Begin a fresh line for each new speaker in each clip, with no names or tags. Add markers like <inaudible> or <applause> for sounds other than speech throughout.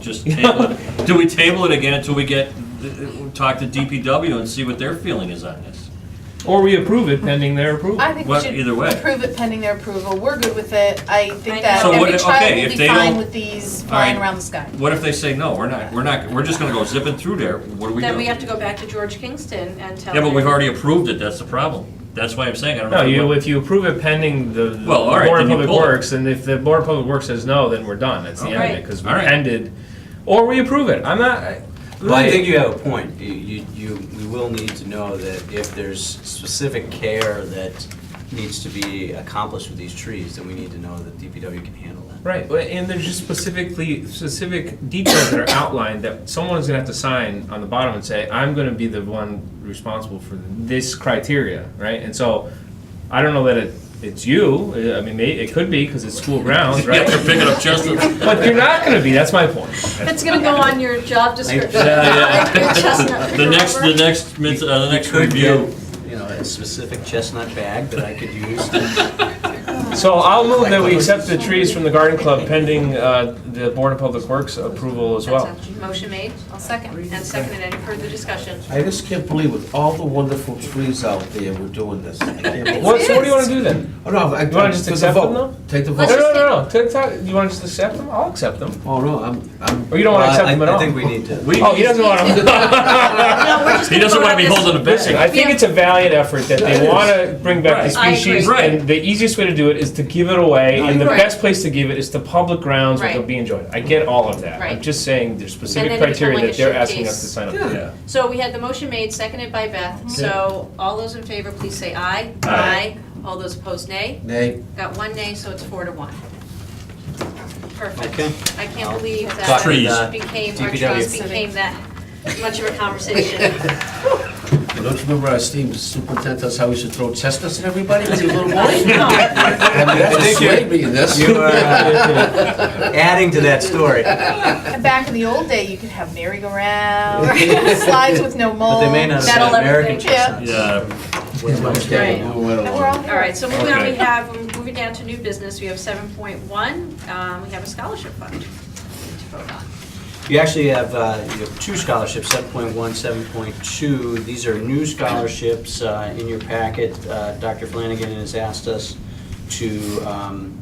just table
<laughs>
it. Do we table it again until we get, uh, talk to DPW and see what their feeling is on this?
Or we approve it pending their approval.
I think we
Well,
should
either way.
approve it pending their approval. We're good with it. I think that
So what
every
if-
child
okay,
will
if
be
they
fine
don't-
with these flying
Alright.
around the sky.
What if they say, no, we're not, we're not, we're just gonna go zipping through there, what are we
Then
doing?
we have to
Yeah,
go back to George Kingston and tell him.
but we've already approved it, that's the problem. That's why I'm saying, I don't know.
No,
if we
you,
would-
if you approve it pending the the
Well, all right,
Board of
then you
Public
pull it.
Works, and if the Board of Public Works says no, then we're done, that's the end of it,
Alright.
because we
Alright.
ended, or we approve it, I'm not, I-
Well, I think you have a point. You, you, you- we will need to know that if there's specific care that needs to be accomplished with these trees, then we need to know that DPW can handle that.
Right, but- and there's just specifically, specific details that are outlined that someone's gonna have to sign on the bottom and say, I'm gonna be the one responsible for this criteria, right? And so, I don't know that it, it's you, uh, I mean, may- it could be, because it's school
<laughs>
grounds,
Yeah,
right?
they're picking up
<laughs>
just, the-
But you're not gonna be, that's my point.
It's gonna go on
<laughs>
your job description.
Yeah,
<laughs> Your chestnut
the next,
forever.
the next, mid- uh, the next
You could
review.
get, You know, a specific chestnut bag that I could use. to-
So I'll move that we accept the trees from the garden club pending uh, the Board of Public Works approval as well.
That's a Motion made, I'll second, and seconded, any further discussion?
I just can't believe with all the wonderful trees out there, we're doing this. I can't believe-
What, so what do you wanna do then?
Oh, no, I.
You wanna just
take the
accept them,
vote.
though?
Take the
No,
Let's
vote.
no, no, no, Take- take- you wanna just accept them? I'll accept them.
Oh, no, I'm, I'm.
Or you don't wanna
Well,
accept
I-
them at all?
I think we need to.
We,
Oh, he doesn't want them.
No, we're just
he
gonna
doesn't
vote
wanna
on
be
this.
holding a
Listen,
bag.
I think it's a valiant effort that they wanna bring back the
Right.
I
species.
agree.
And the easiest way to do it is to give it away, and the
Right.
best place to give it is to public grounds where it'll
Right.
be enjoyed. I get all of that. I'm
Right.
just saying there's
then
specific
it become
criteria
like
that
a
they're asking us
showcase.
to sign up for.
Yeah.
Yeah.
So we had the motion made, seconded by Beth, so all those in favor, please say aye.
Aye.
All those opposed, nay.
Nay,
Got one nay, so it's four to one.
<laughs>
Okay.
Perfect. I
I'll
can't believe
talk
that
to
the
became, our
DPW.
trust became that much of a conversation.
<laughs>
Well, don't you remember our esteemed superintendent, that's how we should throw chestnuts at everybody when you were little boy?
I
<laughs>
know.
I mean, that
I think you're-
swayed me in this.
You are
<laughs>
uh, adding to that story,
And back in the old day, you could have merry-go-round, <laughs> slides with no
but
mold.
they may not have
metal
said American
everything. Yeah.
Yeah,
chestnuts. What's my
Okay,
mistake?
we went
And we're
along.
all
All right, so moving on, we
Okay.
have, we're moving down to new business, we have seven point one, um, we have a scholarship fund. we need to vote on.
You actually have, uh, you have two scholarships, 7.1, 7.2. These are new scholarships uh, in your packet. Uh, Dr. Flanagan has asked us to um,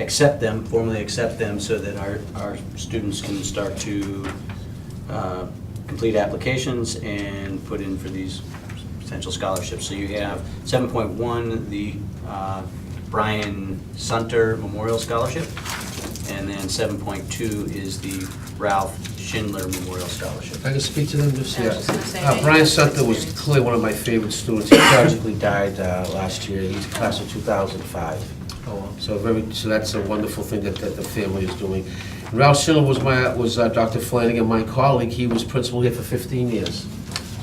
accept them, formally accept them, so that our, our students can start to uh, complete applications and put in for these potential scholarships. So you have 7.1, the uh, Brian Sunter Memorial Scholarship. And then seven point two is the Ralph Schindler Memorial Scholarship.
If I could speak to them just
I was just gonna say
Uh,
that.
Brian Sutton was clearly one of my favorite students. He tragically died uh, last year. He's class of 2005.
Oh,
So very, so that's a wonderful thing that, that the family is doing. Ralph Schindler was my, was uh, Dr. Flanagan, my colleague, he was principal here for 15 years.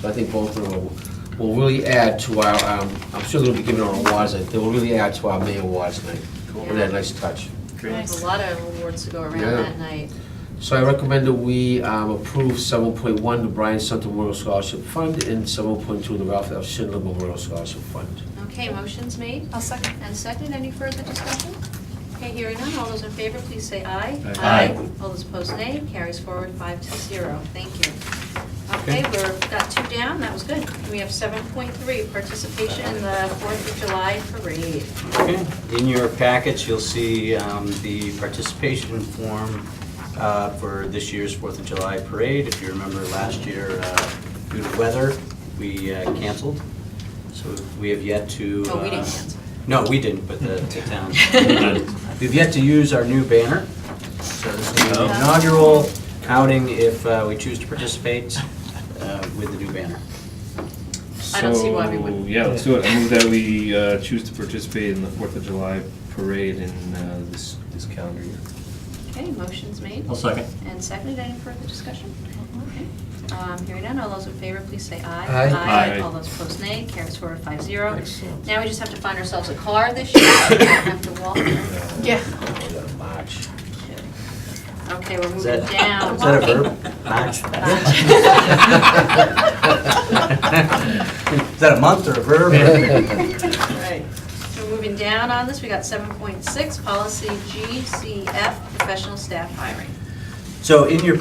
So I think both of them will- will really add to our, um, I'm sure they'll be giving our awards, uh, they will really add to our May awards night. With that nice touch.
There's a lot of awards to go around
Yeah.
that night.
So I recommend that we um, approve 7.1, the Brian Sutton Memorial Scholarship Fund, and 7.2, the Ralph F. Schindler Memorial Scholarship Fund.
Okay, motion's made
I'll second.
and seconded, any further discussion? Okay, hearing none, all those in favor, please say aye.
Aye.
All those opposed, nay, carries forward five to zero, thank you. Okay, we're, got two down, that was good. We have seven point three, participation in the Fourth of July parade.
Okay. In your packets, you'll see um, the participation form uh, for this year's Fourth of July Parade. If you remember last year, uh, due to weather, we uh, canceled. So we have yet to.
Oh, we didn't
uh,
cancel.
No, we didn't, but the the
<laughs>
town. We've yet to use our new banner, so this is the inaugural outing if uh, we choose to participate uh, with the new banner.
I don't see why we wouldn't.
So, Yeah, let's do it. I move that we uh, choose to participate in the Fourth of July parade in uh, this, this calendar year.
Okay, motion's made
I'll second.
and seconded. Any further discussion? Okay. Um, Hearing none, all those in favor, please say aye.
Aye.
Aye.
All those opposed, nay. Carries forward five zero.
Excellent.
Now we just have to find ourselves a car this year. We don't have to walk.
Yeah.
We got a march.
Okay, we're
Is
moving
that-
down.
Is that a verb? Match? <laughs> Is that a month or a verb?
Right. So moving down on this, we got 7.6, policy GCF, professional staff hiring.
So in your